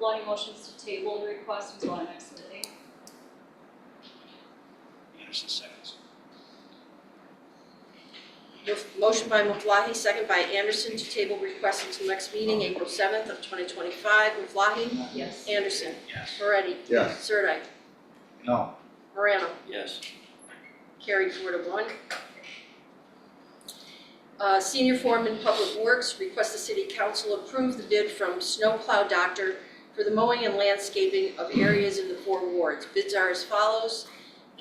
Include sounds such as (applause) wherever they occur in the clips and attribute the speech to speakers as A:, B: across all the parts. A: Lonnie motions to table the request until our next meeting.
B: Anderson seconds.
C: Motion by Maflahe, second by Anderson, to table request until next meeting, April 7th of 2025. Maflahe?
A: Yes.
C: Anderson?
B: Yes.
C: Moretti?
D: Yes.
C: Sirdike?
B: No.
C: Morano?
B: Yes.
C: Carried four to one. Uh, Senior Foreman Public Works requests the City Council approve the bid from Snowplow Doctor for the mowing and landscaping of areas in the four wards. Bids are as follows,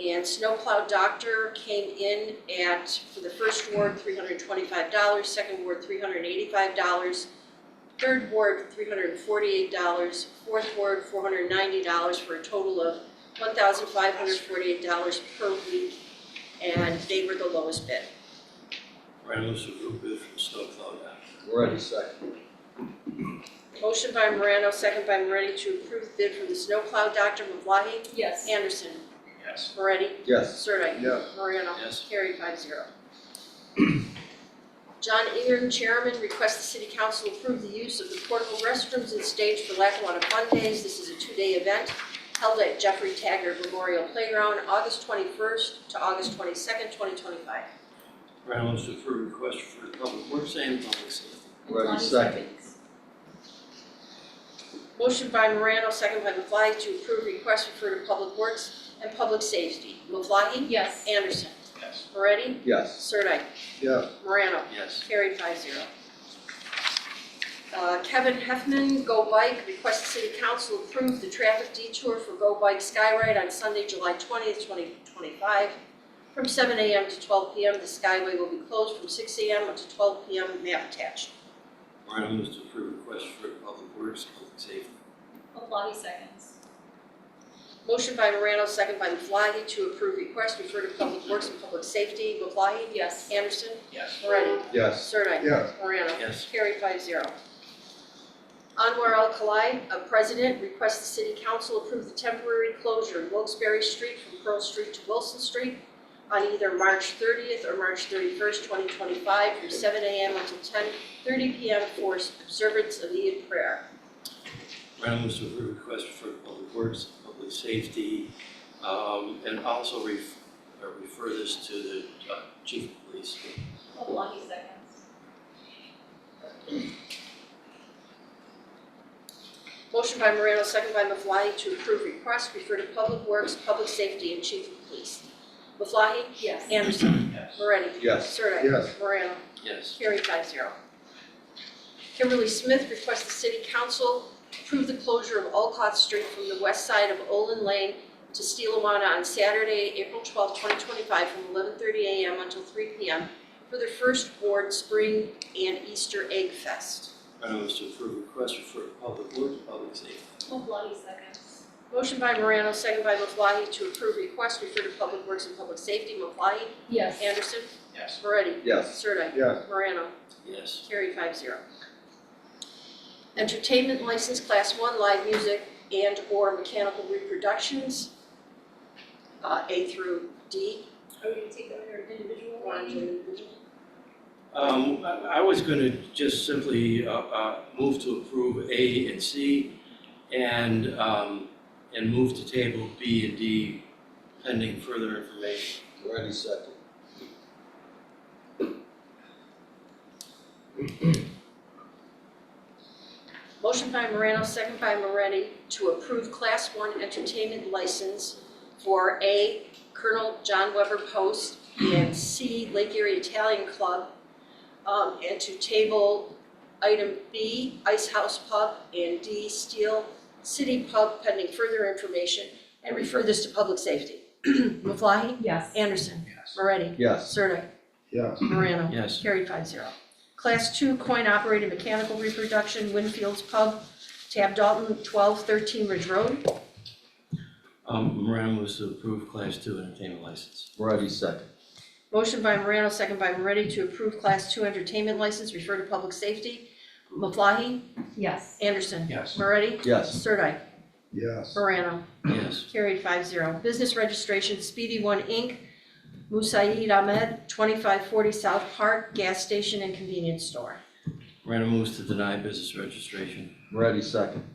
C: and Snowplow Doctor came in at, for the first ward, three hundred and twenty-five dollars, second ward, three hundred and eighty-five dollars, third ward, three hundred and forty-eight dollars, fourth ward, four hundred and ninety dollars, for a total of one thousand five hundred forty-eight dollars per week and they were the lowest bid.
E: Reynolds approved bid from Snowplow Doctor.
D: Moretti second.
C: Motion by Morano, second by Moretti to approve the bid from the snowplow Dr. Mavlahe,
A: Yes.
C: Anderson,
B: Yes.
C: Moretti,
D: Yes.
C: Sirdike.
D: Yes.
C: Morano.
E: Yes.
C: Carried five
D: (clears throat)
C: zero. John Ingram, Chairman, requests the City Council approve the use of the portable restrooms and stage for Lackawanna Fun Days. This is a two-day event held at Jeffrey Taggart Memorial Playground, August 21st to August 22nd, 2025.
E: Reynolds approved request for public works and public safety.
D: Moretti
A: Lonnie
D: second.
A: seconds.
C: Motion by Morano, second by Maflahe, to approve request referred to Public Works and Public Safety. Maflahe?
A: Yes.
C: Anderson?
B: Yes.
C: Moretti?
D: Yes.
C: Sirdike?
D: Yes.
C: Morano?
E: Yes.
C: Carried five zero. Uh, Kevin Heffernan, Go Bike, requests the City Council approve the traffic detour for Go Bike Skyride on Sunday, July twentieth, twenty twenty-five. From seven AM to twelve PM, the Skyway will be closed from six AM until twelve PM, map attached.
E: Reynolds approved request for public works and public safety.
A: Maflahe seconds.
C: Motion by Morano, second by Maflahe, to approve request referred to Public Works and Public Safety. Maflahe?
A: Yes.
C: Anderson?
B: Yes.
C: Moretti?
D: Yes.
C: Sirdike?
D: Yes.
C: Morano?
E: Yes.
C: Carried five zero. Anwar Al Khalai, a president, requests the city council approve the temporary closure of Wilkes-Barre Street from Pearl Street to Wilson Street on either March thirtieth or March thirty-first, twenty twenty-five, from seven AM until ten thirty PM for observance of the Eid prayer.
E: Reynolds approved request for public works and public safety. Um, and also ref, uh, refer this to the uh, chief of police.
A: Maflahe seconds.
C: Motion by Morano, second by Maflahe, to approve request, refer to Public Works, Public Safety, and Chief of Police. Maflahe?
A: Yes.
C: Anderson.
B: Yes.
C: Moretti?
D: Yes.
C: Sirdike?
D: Yes.
C: Morano?
E: Yes.
C: Carried five zero. Kimberly Smith requests the city council approve the closure of Alcott Street from the west side of Olin Lane to Steelawana on Saturday, April twelfth, twenty twenty-five, from eleven thirty AM until three PM for the first Ward Spring and Easter Egg Fest.
E: Reynolds approved request for public works and public safety.
A: Maflahe seconds.
C: Motion by Morano, second by Maflahe, to approve request referred to Public Works and Public Safety. Maflahe?
A: Yes.
C: Anderson?
B: Yes.
C: Moretti?
D: Yes.
C: Sirdike?
D: Yes.
C: Morano?
E: Yes.
C: Carried five zero. Entertainment license, class one, live music and/or mechanical reproductions, uh, A through D.
A: Are we gonna take them in an individual
C: One,
A: one?
C: two, three.
E: Um, I I was gonna just simply, uh, uh, move to approve A and C and, um, and move to table B and D pending further information.
D: Moretti second.
C: Motion by Morano, second by Moretti, to approve class one entertainment license for A, Colonel John Weber Post, and C, Lake Erie Italian Club, um, and to table item B, Ice House Pub, and D, Steel City Pub, pending further information, and refer this to public safety. (clears throat) Maflahe?
A: Yes.
C: Anderson?
B: Yes.
C: Moretti?
D: Yes.
C: Sirdike?
D: Yes.
C: Morano?
E: Yes.
C: Carried five zero. Class two coin operated mechanical reproduction, Winfield's Pub, Tab Dalton, twelve thirteen Ridge Road.
E: Um, Morano moves to approve class two entertainment license.
D: Moretti second.
C: Motion by Morano, second by Moretti to approve class two entertainment license, refer to public safety. Maflahe,
A: Yes.
C: Anderson.
B: Yes.
C: Moretti,
D: Yes.
C: Sirdike,
D: Yes.
C: Morano.
E: Yes.
C: Carried five zero. Business registration, Speedy One Inc., Musaid Ahmed, twenty-five forty South Park, gas station and convenience store.
E: Morano moves to deny business registration.
D: Moretti second.